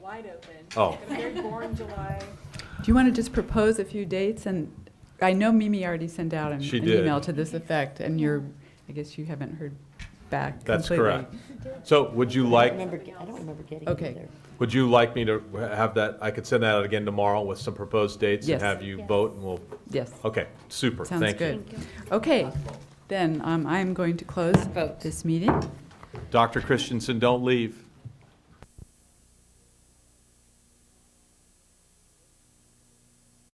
wide open. Oh. Had a very boring July. Do you want to just propose a few dates? And I know Mimi already sent out an She an did. email to this effect, and you're, I guess you haven't heard back That's completely. correct. So would you like, remember, I don't remember getting it Okay. either. would you like me to have that, I could send that out again tomorrow with some proposed dates and Yes. have you Yes. vote and we'll, Yes, okay, super, thank you. sounds good. Okay, then um, I am going to close this meeting. Dr. Christensen, don't leave.